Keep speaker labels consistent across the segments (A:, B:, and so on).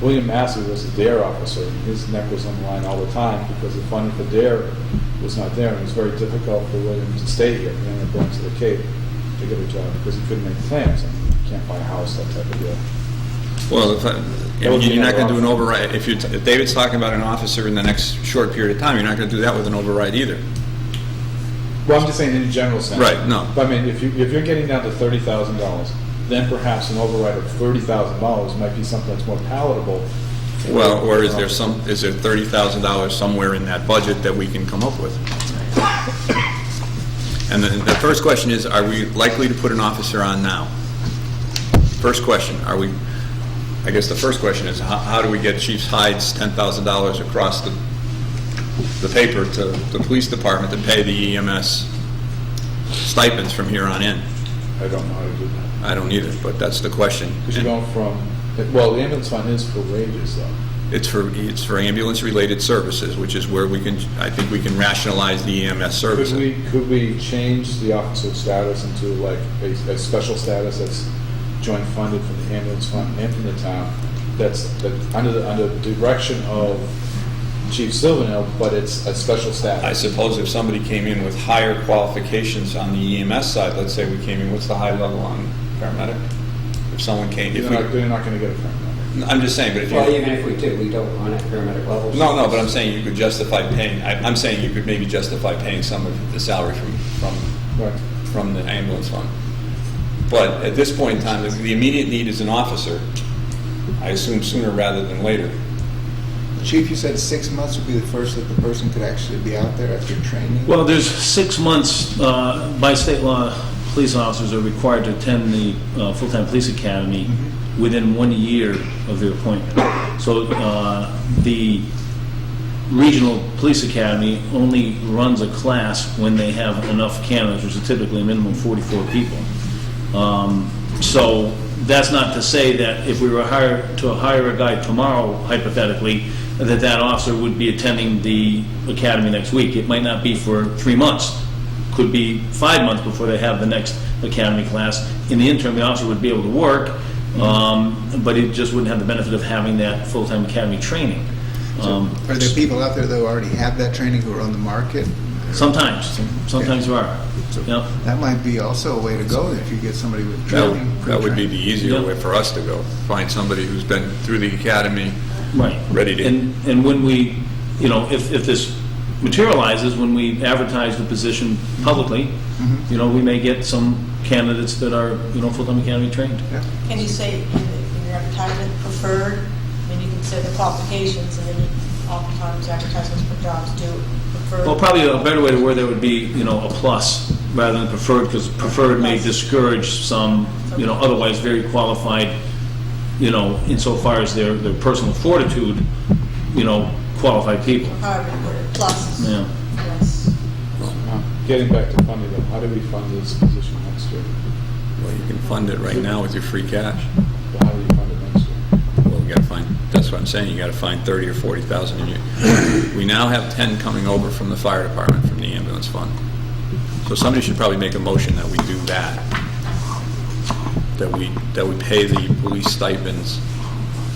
A: William Massey was a DARE officer, and his neck was on the line all the time because the funding for DARE was not there, and it was very difficult for William to stay here. He ended up going to the Cape to get a job because he couldn't make plans, and can't buy a house, that type of deal.
B: Well, if I,
A: That would be
B: you're not going to do an
A: another
B: override, if you're, if David's talking about an officer in the next short period of time, you're not going to do that with an override either.
A: Well, I'm just saying in a general sense.
B: Right, no.
A: But I mean, if you, if you're getting down to thirty thousand dollars, then perhaps an override of thirty thousand dollars might be something that's more palatable.
B: Well, or is there some, is there thirty thousand dollars somewhere in that budget that we can come up with? And then the first question is, are we likely to put an officer on now? First question, are we, I guess the first question is, how, how do we get Chief's Hyde's ten thousand dollars across the, the paper to the police department to pay the EMS stipends from here on in?
A: I don't know how to do that.
B: I don't either, but that's the question.
A: Because you're going from, well, the ambulance fund is for wages though.
B: It's for, it's for ambulance-related services, which is where we can, I think we can rationalize the E EMS
A: Could we,
B: services.
A: could we change the officer status into like a, a special status that's joint funded from the ambulance fund and from the town? That's, that, under the, under the direction of Chief Silvernail, but it's a special status.
B: I suppose if somebody came in with higher qualifications on the EMS side, let's say we came in, what's the high level on paramedic? If someone came, if
A: You're not,
B: we,
A: you're not gonna get a front number.
B: I'm just saying, but if
C: Well,
B: you,
C: even if we did, we don't run at paramedic levels.
B: no, no, but I'm saying you could justify paying, I- I'm saying you could maybe justify paying some of the salary from, from
A: Right.
B: from the ambulance fund. But at this point in time, the immediate need is an officer, I assume sooner rather than later.
D: Chief, you said six months would be the first that the person could actually be out there after training?
E: Well, there's six months, uh, by state law, police officers are required to attend the uh, full-time police academy within one year of their appointment. So uh, the regional police academy only runs a class when they have enough candidates, which is typically a minimum of 44 people. Um, So that's not to say that if we were hired, to hire a guy tomorrow hypothetically, that that officer would be attending the academy next week. It might not be for three months, could be five months before they have the next academy class. In the interim, the officer would be able to work, um, but it just wouldn't have the benefit of having that full-time academy training. Um,
D: Are there people out there that already have that training who are on the market?
E: Sometimes, sometimes there are. Yep.
D: That might be also a way to go if you get somebody with
B: That
D: training.
B: would, that would be
D: pre-trained.
B: the easier
E: Yeah.
B: way for us to go, find somebody who's been through the academy.
E: Right.
B: Ready to-
E: And, and when we, you know, if, if this materializes, when we advertise the position publicly,
B: Mm-hmm.
E: you know, we may get some candidates that are, you know, full-time academy trained.
D: Yeah.
F: Can you say in the- in your advertisement preferred? I mean, you can say the qualifications, and then you- oftentimes advertisements for jobs do prefer.
E: Well, probably a better way to word that would be, you know, a plus rather than preferred, because preferred may discourage some, you know, otherwise very qualified, you know, insofar as their, their personal fortitude, you know, qualified people.
F: However, you word it, plus.
E: Yeah.
F: Yes.
A: Now, Getting back to funding, though, how do we fund this position next year?
B: Well, you can fund it right now with your free cash.
A: Well, How do you fund it next year?
B: Well, you gotta find, that's what I'm saying, you gotta find thirty or forty thousand in your, we now have ten coming over from the fire department, from the ambulance fund. So somebody should probably make a motion that we do that. That we, that we pay the police stipends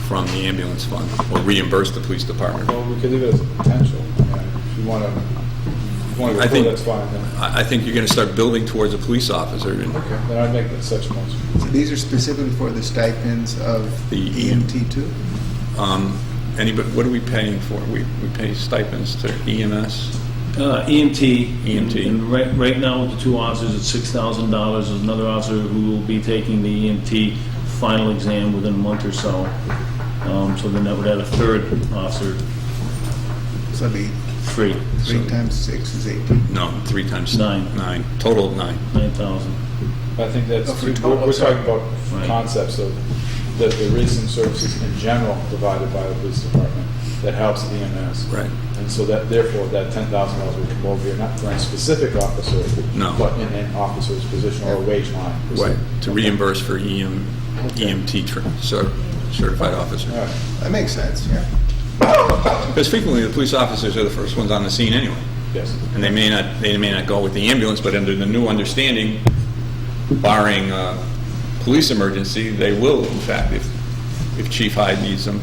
B: from the ambulance fund, or reimburse the police department.
A: Well, we could leave it as a potential. I mean, If you want to, if you want
B: I
A: to go
B: think-
A: through, that's fine. Then
B: I, I think you're gonna start building towards a police officer and
A: Then I'd make that such a motion.
D: These are specifically for the stipends of E
B: The-
D: EMT too?
B: Um, anybody, what are we paying for? We, we pay stipends to E EMS.
E: Uh, EMT.
B: EMT.
E: And right, right now, with the two officers, it's six thousand dollars. There's another officer who will be taking the EMT final exam within a month or so. Um, so then that would add a third officer
D: So it'd be
E: free,
D: three
B: So-
D: times six is 18.
B: No, three times.
E: Nine.
B: Nine, total of nine.
E: nine thousand.
A: I think that's,
D: Oh, for
A: we're
D: total,
A: we're
D: sorry.
A: talking about
E: Right.
A: concepts of, that there is some services in general provided by the police department that helps EMS.
B: Right.
A: And so that, therefore, that ten thousand dollars would come over here, not for a specific officer.
B: No.
A: But in an officer's position or a wage line.
B: Right, to reimburse for E EM, EMT tra- cer- certified
A: All
B: officer.
A: right.
D: That makes sense, yeah.
B: Because frequently, the police officers are the first ones on the scene anyway.
A: Yes.
B: And they may not, they may not go with the ambulance, but under the new understanding, barring a police emergency, they will, in fact, if, if Chief Hyde needs them,